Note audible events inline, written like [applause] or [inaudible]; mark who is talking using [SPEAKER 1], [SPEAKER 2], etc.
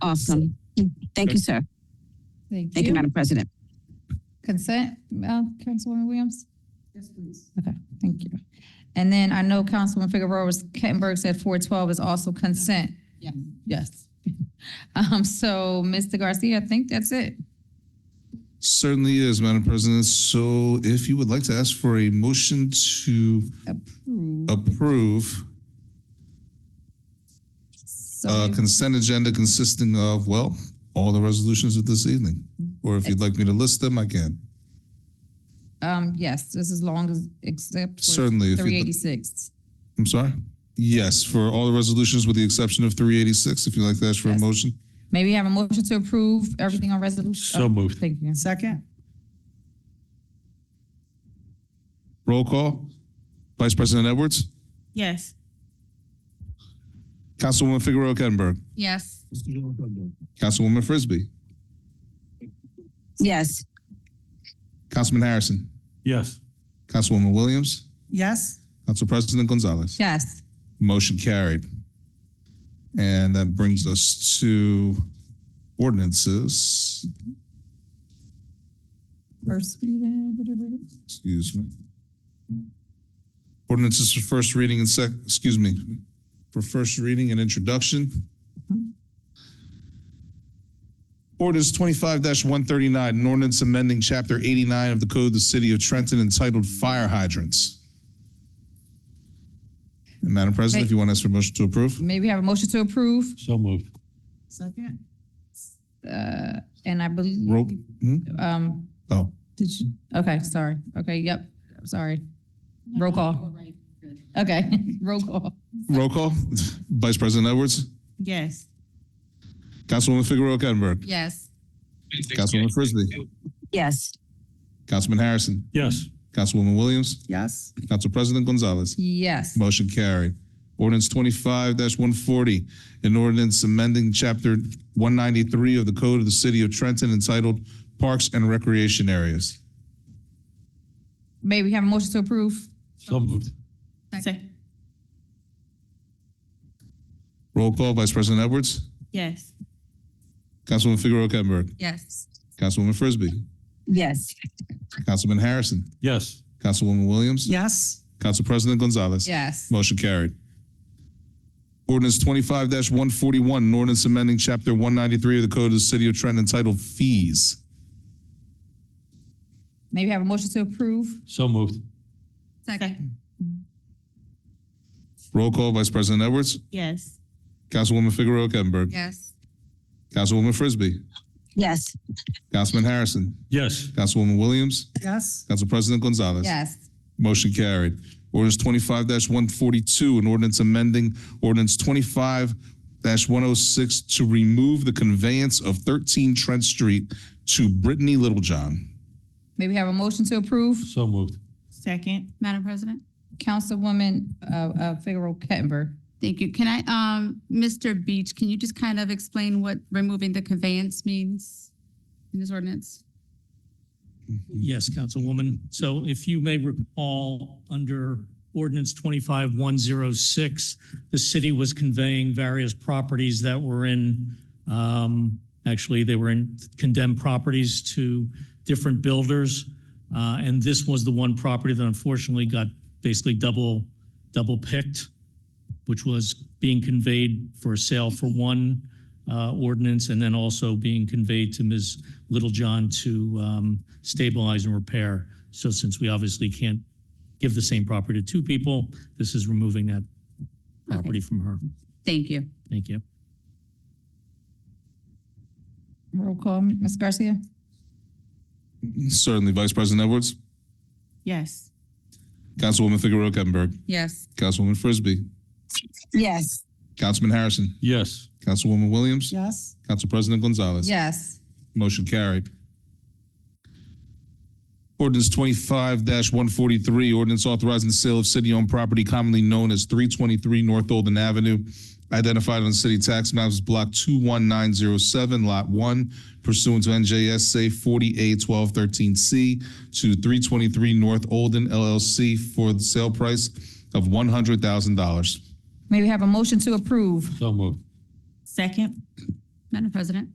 [SPEAKER 1] Awesome. Thank you, sir.
[SPEAKER 2] Thank
[SPEAKER 1] Thank you,
[SPEAKER 2] you.
[SPEAKER 1] Madam President.
[SPEAKER 2] Consent, uh, Councilwoman Williams?
[SPEAKER 3] Yes, please.
[SPEAKER 2] Okay, thank you. And then I know Councilwoman Figueroa was, Kettenberg said four twelve is also consent.
[SPEAKER 3] Yes.
[SPEAKER 2] Yes. [laughs] Um, so, Mr. Garcia, I think that's it.
[SPEAKER 4] Certainly is, Madam President. So if you would like to ask for a motion to approve
[SPEAKER 2] So,
[SPEAKER 4] a consent agenda consisting of, well, all the resolutions of this evening. Or if you'd like me to list them, I can.
[SPEAKER 2] um, yes, this is long as, except for
[SPEAKER 4] Certainly. if
[SPEAKER 2] three
[SPEAKER 4] you'd-
[SPEAKER 2] eighty-six.
[SPEAKER 4] I'm sorry? Yes, for all the resolutions with the exception of 386, if you'd like to ask for a
[SPEAKER 2] Yes.
[SPEAKER 4] motion.
[SPEAKER 2] May we have a motion to approve everything on resolution?
[SPEAKER 5] So moved.
[SPEAKER 2] Thank you.
[SPEAKER 3] Second?
[SPEAKER 4] Roll call. Vice President Edwards?
[SPEAKER 6] Yes.
[SPEAKER 4] Councilwoman Figueroa Kettner.
[SPEAKER 2] Yes.
[SPEAKER 4] Councilwoman Frisbee.
[SPEAKER 1] Yes,
[SPEAKER 4] Councilman Harrison.
[SPEAKER 5] Yes.
[SPEAKER 4] Councilwoman Williams.
[SPEAKER 3] Yes?
[SPEAKER 4] Council President Gonzalez.
[SPEAKER 2] Yes.
[SPEAKER 4] Motion carried. And that brings us to ordinances.
[SPEAKER 2] First reading, whatever.
[SPEAKER 4] Excuse me. Ordinances for first reading and sec, excuse me, for first reading and introduction. Ordinance twenty-five one thirty-nine, an ordinance amending chapter eighty-nine of the Code of the City of Trenton entitled Fire Hydrants. And Madam President, if you want to ask for a motion to approve?
[SPEAKER 2] May we have a motion to approve?
[SPEAKER 5] So moved.
[SPEAKER 3] Second?
[SPEAKER 2] Uh, and I
[SPEAKER 4] Roll,
[SPEAKER 2] believe,
[SPEAKER 4] hmm?
[SPEAKER 2] um,
[SPEAKER 4] oh,
[SPEAKER 2] Did you, okay, sorry. Okay, yep, sorry. Roll call. Okay, [laughs] roll call.
[SPEAKER 4] roll call. Vice President Edwards,
[SPEAKER 6] Yes.
[SPEAKER 4] Councilwoman Figueroa Kettner,
[SPEAKER 2] Yes.
[SPEAKER 4] Councilwoman Frisbee,
[SPEAKER 1] yes,
[SPEAKER 4] Councilman Harrison,
[SPEAKER 5] Yes.
[SPEAKER 4] Councilwoman Williams,
[SPEAKER 3] Yes?
[SPEAKER 4] Council President Gonzalez.
[SPEAKER 2] Yes.
[SPEAKER 4] Motion carried. Ordinance twenty-five one forty, an ordinance amending chapter one ninety-three of the Code of the City of Trenton entitled Parks and Recreation Areas.
[SPEAKER 2] May we have a motion to approve?
[SPEAKER 5] So moved.
[SPEAKER 6] Second.
[SPEAKER 4] Roll call, Vice President Edwards,
[SPEAKER 6] Yes.
[SPEAKER 4] Councilwoman Figueroa Kettner,
[SPEAKER 2] Yes.
[SPEAKER 4] Councilwoman Frisbee,
[SPEAKER 1] yes,
[SPEAKER 4] Councilman Harrison,
[SPEAKER 5] Yes.
[SPEAKER 4] Councilwoman Williams,
[SPEAKER 3] Yes?
[SPEAKER 4] Council President Gonzalez.
[SPEAKER 2] Yes.
[SPEAKER 4] Motion carried. Ordinance twenty-five one forty-one, an ordinance amending chapter one ninety-three of the Code of the City of Trenton entitled Fees.
[SPEAKER 2] May we have a motion to approve?
[SPEAKER 5] So moved.
[SPEAKER 6] Second.
[SPEAKER 4] Roll call, Vice President Edwards,
[SPEAKER 6] Yes.
[SPEAKER 4] Councilwoman Figueroa Kettner,
[SPEAKER 2] Yes.
[SPEAKER 4] Councilwoman Frisbee,
[SPEAKER 1] yes,
[SPEAKER 4] Councilman Harrison,
[SPEAKER 5] Yes.
[SPEAKER 4] Councilwoman Williams,
[SPEAKER 3] Yes?
[SPEAKER 4] Council President Gonzalez.
[SPEAKER 2] Yes.
[SPEAKER 4] Motion carried. Ordinance twenty-five one forty-two, an ordinance amending ordinance twenty-five one oh six to remove the conveyance of thirteen Trent Street to Brittany Littlejohn.
[SPEAKER 2] May we have a motion to approve?
[SPEAKER 5] So moved.
[SPEAKER 6] Second.
[SPEAKER 7] Madam President?
[SPEAKER 2] Councilwoman, uh, uh, Figueroa Kettenberg.
[SPEAKER 7] Thank you. Can I, um, Mr. Beach, can you just kind of explain what removing the conveyance means in this ordinance?
[SPEAKER 8] Yes, Councilwoman. So if you may recall, under ordinance 25106, the city was conveying various properties that were in, um, actually, they were in condemned properties to different builders. Uh, And this was the one property that unfortunately got basically double, double picked, which was being conveyed for sale for one uh, ordinance and then also being conveyed to Ms. Littlejohn to um, stabilize and repair. So since we obviously can't give the same property to two people, this is removing that property from her.
[SPEAKER 7] Thank you.
[SPEAKER 8] Thank you.
[SPEAKER 2] Roll call, Ms. Garcia?
[SPEAKER 4] Certainly, Vice President Edwards,
[SPEAKER 6] Yes.
[SPEAKER 4] Councilwoman Figueroa Kettner,
[SPEAKER 2] Yes.
[SPEAKER 4] Councilwoman Frisbee,
[SPEAKER 1] yes,
[SPEAKER 4] Councilman Harrison,
[SPEAKER 5] Yes.
[SPEAKER 4] Councilwoman Williams,
[SPEAKER 3] Yes?
[SPEAKER 4] Council President Gonzalez.
[SPEAKER 2] Yes.
[SPEAKER 4] Motion carried. Ordinance twenty-five one forty-three, ordinance authorizing the sale of city-owned property commonly known as three twenty-three North Olden Avenue, identified on city tax maps as block two one nine zero seven, lot one, pursuant to NJSA forty-eight twelve thirteen C to three twenty-three North Olden LLC for the sale price of one hundred thousand dollars.
[SPEAKER 2] May we have a motion to approve?
[SPEAKER 5] So moved.
[SPEAKER 6] Second.
[SPEAKER 2] Madam President.